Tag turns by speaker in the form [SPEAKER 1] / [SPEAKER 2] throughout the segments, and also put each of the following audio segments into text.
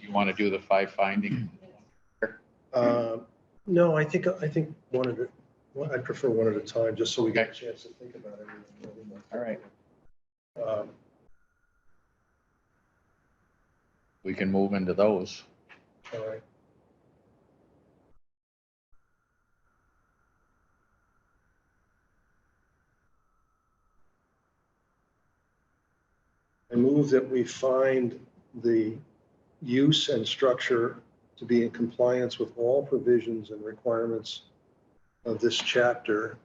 [SPEAKER 1] you want to do the five finding?
[SPEAKER 2] Uh, No, I think, I think one at, a- well, I'd prefer one at a time, just so we get a chance to think about everything.
[SPEAKER 1] All right.
[SPEAKER 2] Um,
[SPEAKER 1] We can move into those.
[SPEAKER 2] All right. I move that we find the use and structure to be in compliance with all provisions and requirements of this chapter,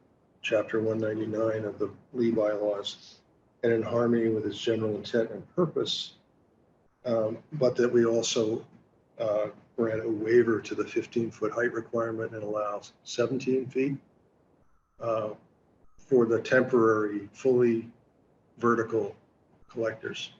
[SPEAKER 2] chapter one ninety-nine of the Lee bylaws, and in harmony with its general intent and purpose. um, But that we also uh, grant a waiver to the 15-foot height requirement and allows 17 feet uh, for the temporary, fully vertical collectors.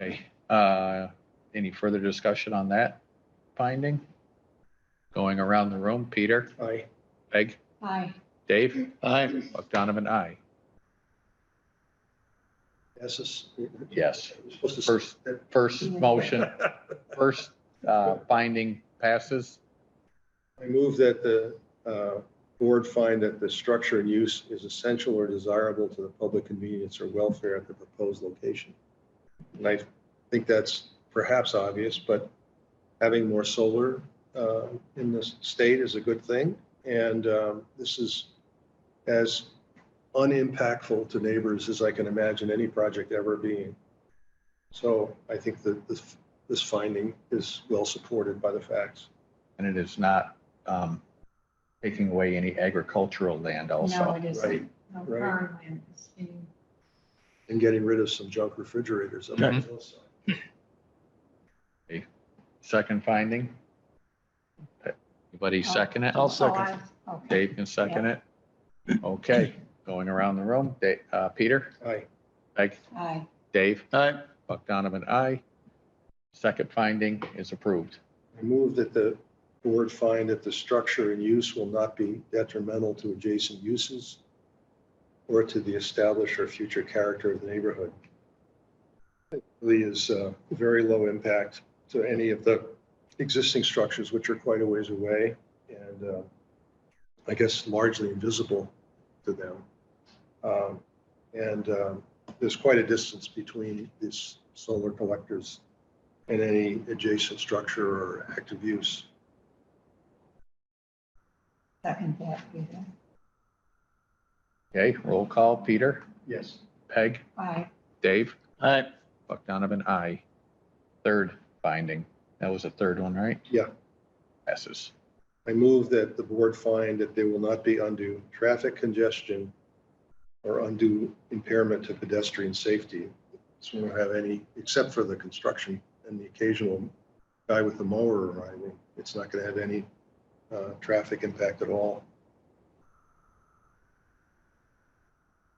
[SPEAKER 1] Okay, uh, any further discussion on that finding? Going around the room, Peter,
[SPEAKER 2] I,
[SPEAKER 1] Peg,
[SPEAKER 3] Aye.
[SPEAKER 1] Dave? Aye. Buck Donovan, aye.
[SPEAKER 2] yes, is-
[SPEAKER 1] Yes.
[SPEAKER 2] We're supposed to-
[SPEAKER 1] First, first motion, first, uh, finding passes.
[SPEAKER 2] I move that the uh, board find that the structure and use is essential or desirable to the public convenience or welfare at the proposed location. And I think that's perhaps obvious, but having more solar uh, in this state is a good thing. And um, this is as unimpactful to neighbors as I can imagine any project ever being. So I think that this, this finding is well supported by the facts.
[SPEAKER 1] And it is not, um, taking away any agricultural land also.
[SPEAKER 3] No, it
[SPEAKER 2] right,
[SPEAKER 3] isn't. No,
[SPEAKER 2] right.
[SPEAKER 3] farmland is being,
[SPEAKER 2] and getting rid of some junk refrigerators up on the
[SPEAKER 1] Mhm.
[SPEAKER 2] hillside.
[SPEAKER 1] Second finding? Anybody second it?
[SPEAKER 3] I'll second. Oh, Okay.
[SPEAKER 1] Dave can second it. Okay, going around the room, Da- uh, Peter,
[SPEAKER 2] Aye.
[SPEAKER 1] Peg,
[SPEAKER 3] Aye.
[SPEAKER 1] Dave. Aye. Buck Donovan, aye. Second finding is approved.
[SPEAKER 2] I move that the board find that the structure and use will not be detrimental to adjacent uses or to the established or future character of the neighborhood. It really is uh, very low impact to any of the existing structures, which are quite a ways away and uh, I guess largely invisible to them. Um, And um, there's quite a distance between these solar collectors and any adjacent structure or active use.
[SPEAKER 3] Second that, Peter.
[SPEAKER 1] Okay, roll call, Peter,
[SPEAKER 2] Yes.
[SPEAKER 1] Peg,
[SPEAKER 3] Aye.
[SPEAKER 1] Dave. Aye. Buck Donovan, aye. Third finding, that was the third one, right?
[SPEAKER 2] Yeah.
[SPEAKER 1] Passes.
[SPEAKER 2] I move that the board find that there will not be undue traffic congestion or undue impairment to pedestrian safety. So we don't have any, except for the construction and the occasional guy with the mower arriving. It's not going to have any uh, traffic impact at all.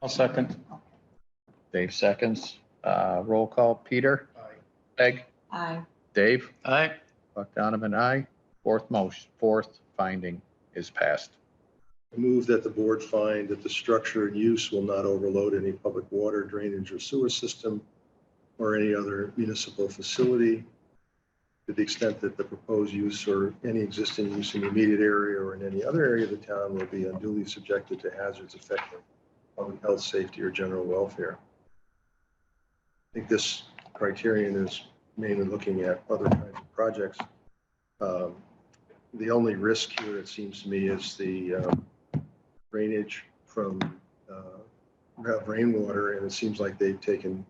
[SPEAKER 4] I'll second.
[SPEAKER 1] Dave seconds. Uh, roll call, Peter, Peg,
[SPEAKER 3] Aye.
[SPEAKER 1] Dave.
[SPEAKER 4] Aye.
[SPEAKER 1] Buck Donovan, aye. Fourth motion, fourth finding is passed.
[SPEAKER 2] I move that the board find that the structure and use will not overload any public water, drainage, or sewer system or any other municipal facility to the extent that the proposed use or any existing use in the immediate area or in any other area of the town will be unduly subjected to hazards affecting public health, safety, or general welfare. I think this criterion is mainly looking at other kinds of projects. Um, The only risk here, it seems to me, is the um, drainage from uh, rainwater, and it seems like they've taken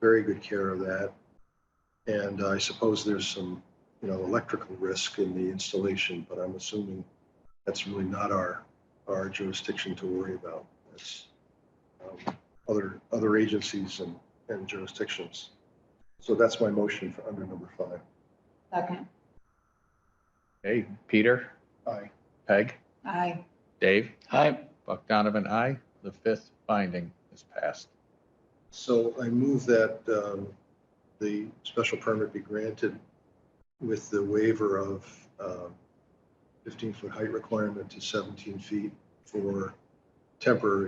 [SPEAKER 2] very good care of that. And I suppose there's some, you know, electrical risk in the installation, but I'm assuming that's really not our, our jurisdiction to worry about. That's um, other, other agencies and, and jurisdictions. So that's my motion for under number five.
[SPEAKER 3] Second.
[SPEAKER 1] Hey, Peter,
[SPEAKER 2] Aye.
[SPEAKER 1] Peg,
[SPEAKER 3] Aye.
[SPEAKER 1] Dave,
[SPEAKER 4] Aye.
[SPEAKER 1] Buck Donovan, aye. The fifth finding is passed.
[SPEAKER 2] So I move that um, the special permit be granted with the waiver um, of 15-foot height requirement to 17 feet for temporary